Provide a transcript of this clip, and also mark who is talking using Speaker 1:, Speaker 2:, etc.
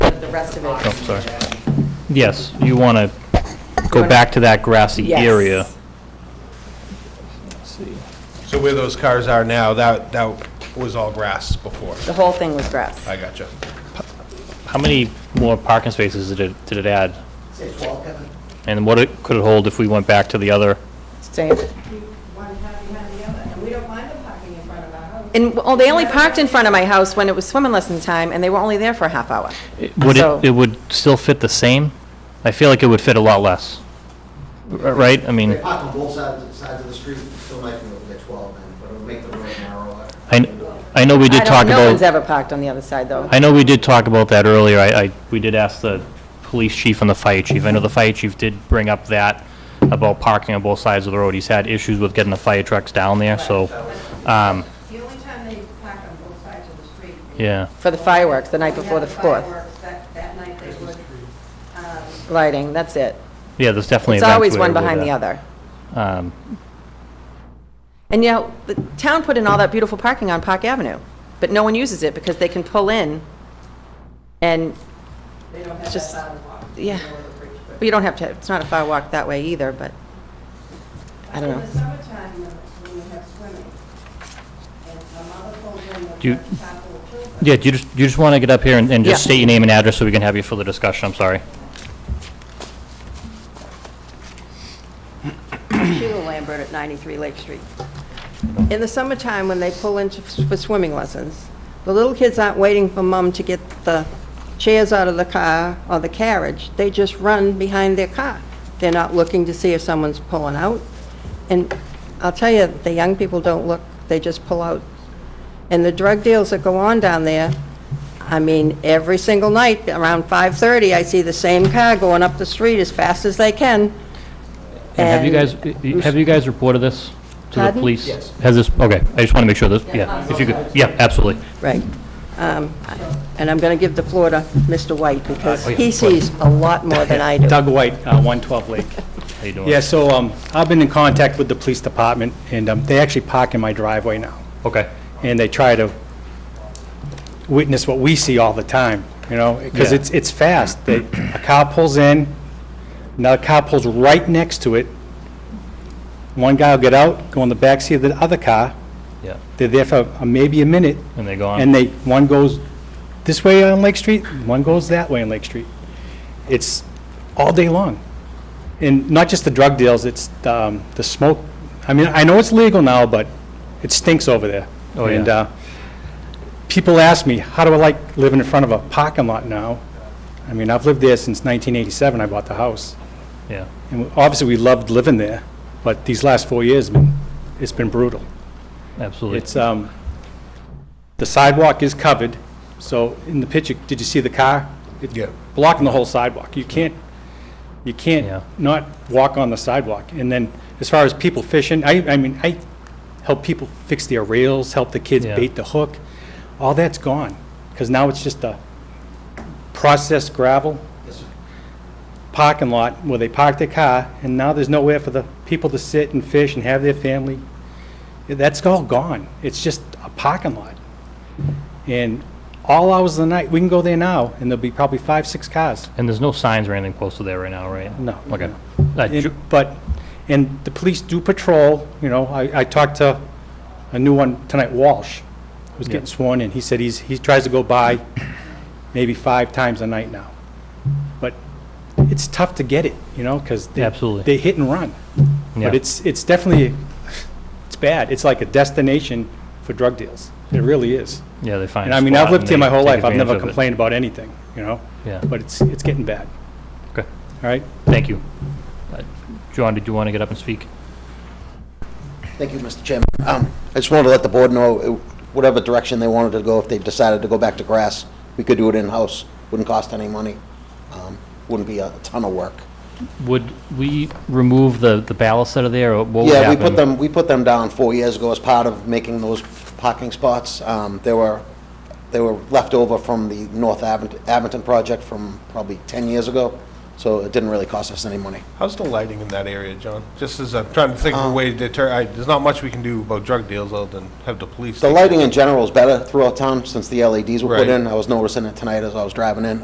Speaker 1: rest of it.
Speaker 2: Oh, sorry. Yes, you want to go back to that grassy
Speaker 1: Yes.
Speaker 2: area.
Speaker 3: So where those cars are now, that, that was all grass before.
Speaker 1: The whole thing was grass.
Speaker 3: I gotcha.
Speaker 2: How many more parking spaces did it, did it add?
Speaker 4: Say 12, Kevin?
Speaker 2: And what it, could it hold if we went back to the other?
Speaker 1: Same.
Speaker 5: one half behind the other, and we don't mind them parking in front of our house.
Speaker 1: And, well, they only parked in front of my house when it was swimming lesson time, and they were only there for a half hour.
Speaker 2: Would
Speaker 1: So-
Speaker 2: it, it would still fit the same? I feel like it would fit a lot less. R- Right? I mean,
Speaker 4: They park on both sides, sides of the street, still might be able to get 12 then, but it'll make the road narrower.
Speaker 2: I, I know we did
Speaker 1: I don't,
Speaker 2: talk
Speaker 1: no
Speaker 2: about.
Speaker 1: one's ever parked on the other side, though.
Speaker 2: I know we did talk about that earlier. I, I, we did ask the police chief and the fire chief. I know the fire chief did bring up that about parking on both sides of the road. He's had issues with getting the fire trucks down there, so, um,
Speaker 5: The only time they park on both sides of the street. is
Speaker 2: yeah.
Speaker 1: For the fireworks, the night
Speaker 5: when we
Speaker 1: before the
Speaker 5: have
Speaker 1: fourth.
Speaker 5: fireworks, That, that night they would, um,
Speaker 1: Lighting, that's it.
Speaker 2: Yeah, there's definitely
Speaker 1: It's
Speaker 2: events
Speaker 1: always
Speaker 2: where
Speaker 1: one
Speaker 2: it would,
Speaker 1: behind the
Speaker 2: uh,
Speaker 1: other.
Speaker 2: Um,
Speaker 1: And, you know, the town put in all that beautiful parking on Park Avenue, but no one uses it because they can pull in, and
Speaker 5: they don't have that
Speaker 1: Just-
Speaker 5: sidewalk.
Speaker 1: yeah.
Speaker 5: you know, the bridge, but-
Speaker 1: well, you don't have to, it's not a fire walk that way either, but, I don't
Speaker 5: In the
Speaker 1: know.
Speaker 5: summertime, when when we have swimming, and my mother pulls in
Speaker 2: Do you-
Speaker 5: the couple of children.
Speaker 2: Yeah, do you just, you just want to get up here and, and just
Speaker 1: Yeah.
Speaker 2: state your name and address so we can have you for the discussion? I'm sorry.
Speaker 5: Sheila Lambert at 93 Lake Street. In the summertime, when they pull in to- for swimming lessons, the little kids aren't waiting for mom to get the chairs out of the car or the carriage. They just run behind their car. They're not looking to see if someone's pulling out. And I'll tell you, the young people don't look, they just pull out. And the drug deals that go on down there, I mean, every single night, around 5:30, I see the same car going up the street as fast as they can.
Speaker 2: And have you
Speaker 5: And-
Speaker 2: guys, have you guys reported this to the
Speaker 5: Pardon?
Speaker 2: police? Has this, okay, I just want to make sure this, yeah, if you could, yeah, absolutely.
Speaker 5: Right. Um, And I'm going to give the floor to Mr. White, because
Speaker 2: Oh, yeah,
Speaker 5: he
Speaker 2: go ahead.
Speaker 5: sees a lot more than I do.
Speaker 6: Doug White, uh, 112 Lake.
Speaker 2: How you doing?
Speaker 6: Yeah, so um, I've been in contact with the police department, and um, they actually park in my driveway now,
Speaker 2: Okay.
Speaker 6: and they try to witness what we see all the time, you know, because
Speaker 2: Yeah.
Speaker 6: it's, it's fast. They- A car pulls in, another car pulls right next to it. One guy will get out, go in the backseat of the other car.
Speaker 2: Yeah.
Speaker 6: They're there for uh, maybe a minute,
Speaker 2: And they go on.
Speaker 6: and they, one goes this way on Lake Street, one goes that way on Lake Street. It's all day long. And not just the drug deals, it's um, the smoke. I mean, I know it's legal now, but it stinks over there.
Speaker 2: Oh, yeah.
Speaker 6: And uh, people ask me, how do I like living in front of a parking lot now? I mean, I've lived there since 1987, I bought the house.
Speaker 2: Yeah.
Speaker 6: And obviously, we loved living there, but these last four years, it's been brutal.
Speaker 2: Absolutely.
Speaker 6: It's, um, the sidewalk is covered, so in the picture, did you see the car? It's
Speaker 3: Yeah.
Speaker 6: Blocking the whole sidewalk. You can't, you
Speaker 2: Yeah.
Speaker 6: can't not walk on the sidewalk. And then, as far as people fishing, I, I mean, I help people fix their rails, help the kids
Speaker 2: Yeah.
Speaker 6: bait the hook. All that's gone, because now it's just a processed gravel parking lot where they park their car, and now there's nowhere for the people to sit and fish and have their family. That's all gone. It's just a parking lot. And all hours of the night, we can go there now, and there'll be probably five, six cars.
Speaker 2: And there's no signs or anything posted there right now, right?
Speaker 6: No.
Speaker 2: Okay. Uh,
Speaker 6: And-
Speaker 2: Ju-
Speaker 6: But, and the police do patrol, you know, I, I talked to a new one tonight, Walsh, who's
Speaker 2: Yeah.
Speaker 6: getting sworn in, he said he's, he tries to go by maybe five times a night now. But it's tough to get it, you know, because they.
Speaker 2: Absolutely.
Speaker 6: They hit and run.
Speaker 2: Yeah.
Speaker 6: But it's, it's definitely, it's bad, it's like a destination for drug deals, it really is.
Speaker 2: Yeah, they find.
Speaker 6: And
Speaker 2: a
Speaker 6: I mean,
Speaker 2: spot
Speaker 6: I've lived
Speaker 2: they
Speaker 6: here my whole
Speaker 2: take
Speaker 6: life, I've
Speaker 2: advantage
Speaker 6: never
Speaker 2: of it.
Speaker 6: complained about anything, you know?
Speaker 2: Yeah.
Speaker 6: But it's, it's getting bad,
Speaker 2: Okay,
Speaker 6: all right?
Speaker 2: thank you. Uh, John, did you want to get up and speak?
Speaker 4: Thank you, Mr. Chairman. Um, I just wanted to let the board know, uh, whatever direction they wanted to go, if they decided to go back to grass, we could do it in-house, wouldn't cost any money, um, wouldn't be a ton of work.
Speaker 2: Would we remove the, the ballast out of there, or what would
Speaker 4: Yeah, we
Speaker 2: happen?
Speaker 4: put them, we put them down four years ago as part of making those parking spots. Um, They were, they were left over from the North Abington Abington project from probably 10 years ago, so it didn't really cost us any money.
Speaker 3: How's the lighting in that area, John? Just as I'm trying to think of a way to deter, I, there's not much we can do about drug deals other than have the police.
Speaker 4: The
Speaker 3: take
Speaker 4: lighting in general is better throughout town since the LEDs were put
Speaker 3: Right.
Speaker 4: in. I was noticing it tonight as I was driving in.